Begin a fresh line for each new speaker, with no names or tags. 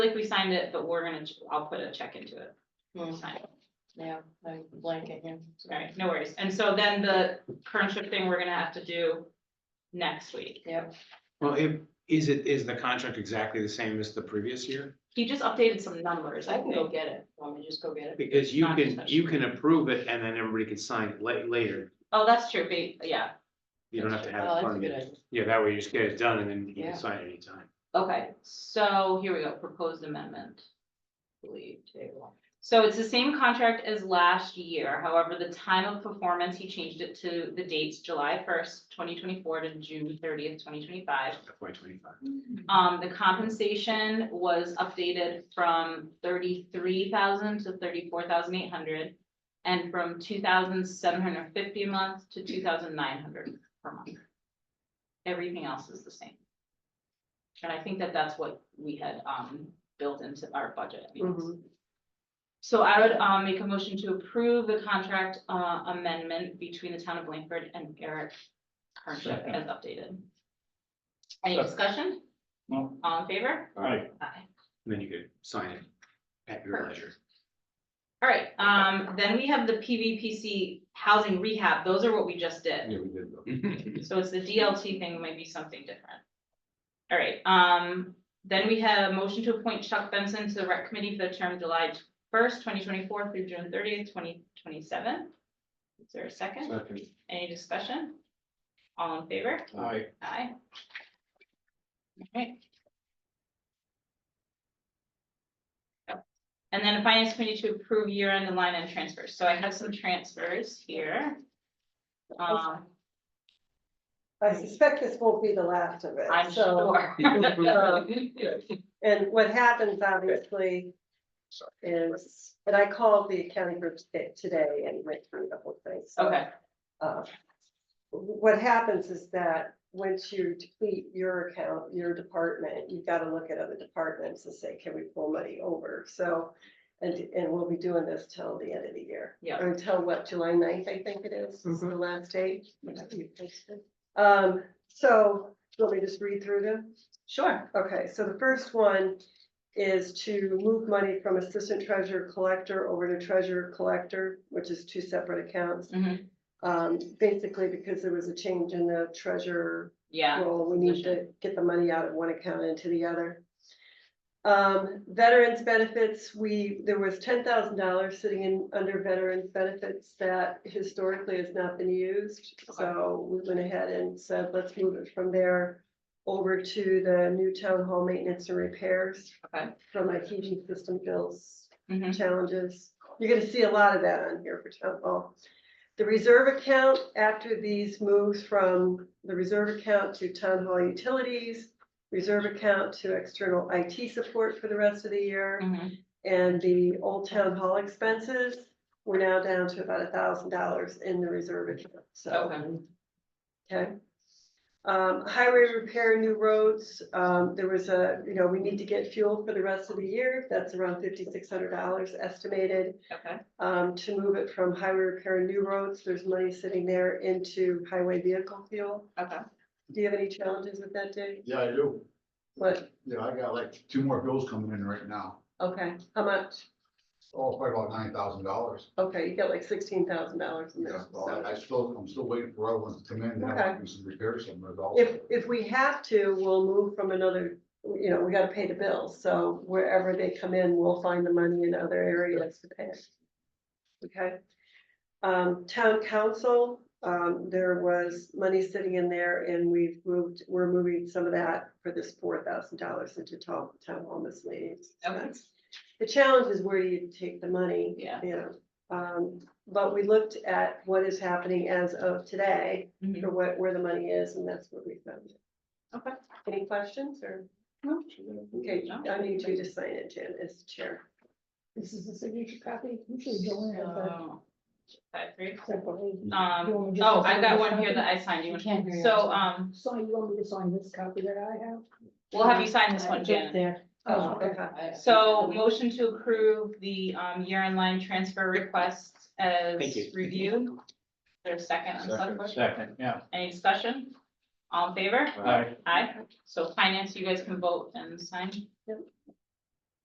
like we signed it, but we're gonna, I'll put a check into it. We'll sign it.
Yeah, I'm blanking here.
All right, no worries. And so then the internship thing we're gonna have to do next week.
Yep,
Well, if, is it, is the contract exactly the same as the previous year?
He just updated some numbers,
I
I
can go
think.
get it. Want me to just go get it?
Because you
Not
can,
touched.
you can approve it and then everybody can sign it la- later.
Oh, that's true, but yeah,
You don't have to have
Oh,
it
that's a good
funded.
idea.
Yeah, that way you just get it done and then you
Yeah.
can sign anytime.
okay, so here we go, proposed amendment.
Leave table.
So it's the same contract as last year, however, the time of performance, he changed it to the dates July first, twenty twenty-four to June thirtieth, twenty twenty-five.
FY twenty-five.
Um, the compensation was updated from thirty-three thousand to thirty-four thousand eight hundred. And from two thousand seven hundred fifty a month to two thousand nine hundred per month. Everything else is the same. And I think that that's what we had, um, built into our budget. I mean, it's-
Mhm.
So I would, um, make a motion to approve the contract, uh, amendment between the town of Blanford and Eric Hardship
Second.
as updated. Any
Second.
discussion?
No.
All in favor?
Aye.
Aye.
And then you could sign it at your
Perfect.
leisure.
All right, um, then we have the PVPC housing rehab. Those are what we just did.
Yeah, we did. though.
So it's the DLT thing, might be something different. All right, um, then we have a motion to appoint Chuck Benson to the rec committee for the term July first, twenty twenty-four through June thirtieth, twenty twenty-seven. Is there a second?
Second.
Any discussion? All in favor?
Aye.
Aye. Okay. And then finance committee to approve year-end and line end transfers. So I have some transfers here. Um,
I suspect this won't be the last of it,
I'm
so,
sure.
uh, and what happens obviously is, and I called the accounting group sta- today and went through the whole thing, so.
Okay,
uh, What happens is that once you deplete your account, your department, you've got to look at other departments and say, can we pull money over? So, and, and we'll be doing this till the end of the year.
Yeah.
Or Until what, July 9th, I think it is, is the last date.
Mhm.
You posted. Um, so, let me to just read through them.
sure.
Okay, so the first one is to move money from assistant treasurer collector over to treasurer collector, which is two separate accounts.
Mhm.
Um, basically because there was a change in the treasurer
Yeah,
role, we need to get the money out of one account into the other. Um, veterans benefits, we, there was ten thousand dollars sitting in, under veterans benefits that historically has not been used. So we went ahead and said, let's move it from there over to the new town hall maintenance and repairs
okay.
from my heating system bills
Mhm.
challenges. You're gonna see a lot of that on here for town hall. The reserve account, after these moves from the reserve account to town hall utilities, reserve account to external IT support for the rest of the year,
Mhm.
and the old town hall expenses, we're now down to about thousand dollars in the reserve account, so.
Okay,
Okay. Um, highway repair, new roads, um, there was a, you know, we need to get fuel for the rest of the year, that's around fifty-six hundred dollars estimated.
okay,
Um, to move it from highway repair, and new roads, there's money sitting there into highway vehicle fuel.
okay.
Do you have any challenges with that, Dave?
Yeah, I do.
What,
Yeah, I got like two more bills coming in right now.
okay, how much?
Oh, probably about nine thousand dollars.
Okay, you got like sixteen thousand dollars in
Yeah,
there,
well,
so.
I- I still, I'm still waiting for other ones to come in. I
Okay.
Do some repairs somewhere also.
If, if we have to, we'll move from another, you know, we gotta pay the bills, so wherever they come in, we'll find the money in other areas to pay. Okay, um, town council, um, there was money sitting in there and we've moved, we're moving some of that for this four thousand dollars into town, town hall miscellaneous.
Okay.
expense. The challenge is where do you take the money?
Yeah.
You know, um, but we looked at what is happening as of today
Mhm.
Mm-hmm.
for what, where the money is, and that's what we found.
Okay.
Any questions or,
Mm-hmm.
okay,
No.
I need you to sign it, Jen, as chair.
This is the signature copy, usually go in at the
So, Oh. Five, three.
separately. You
Um,
want me to
oh,
just-
I've got one here that I signed you.
You can't hear
So,
yourself.
um,
So you want me to sign this copy that I have?
we'll have you sign this one,
Get
Janet.
There.
Oh, okay.
I-
So motion to approve the um year in line transfer requests as
Thank you.
reviewed. There's second on the select board.
Second, yeah.
Any discussion? All in favor?
Aye.
Aye. So finance, you guys can vote and sign.
Yep.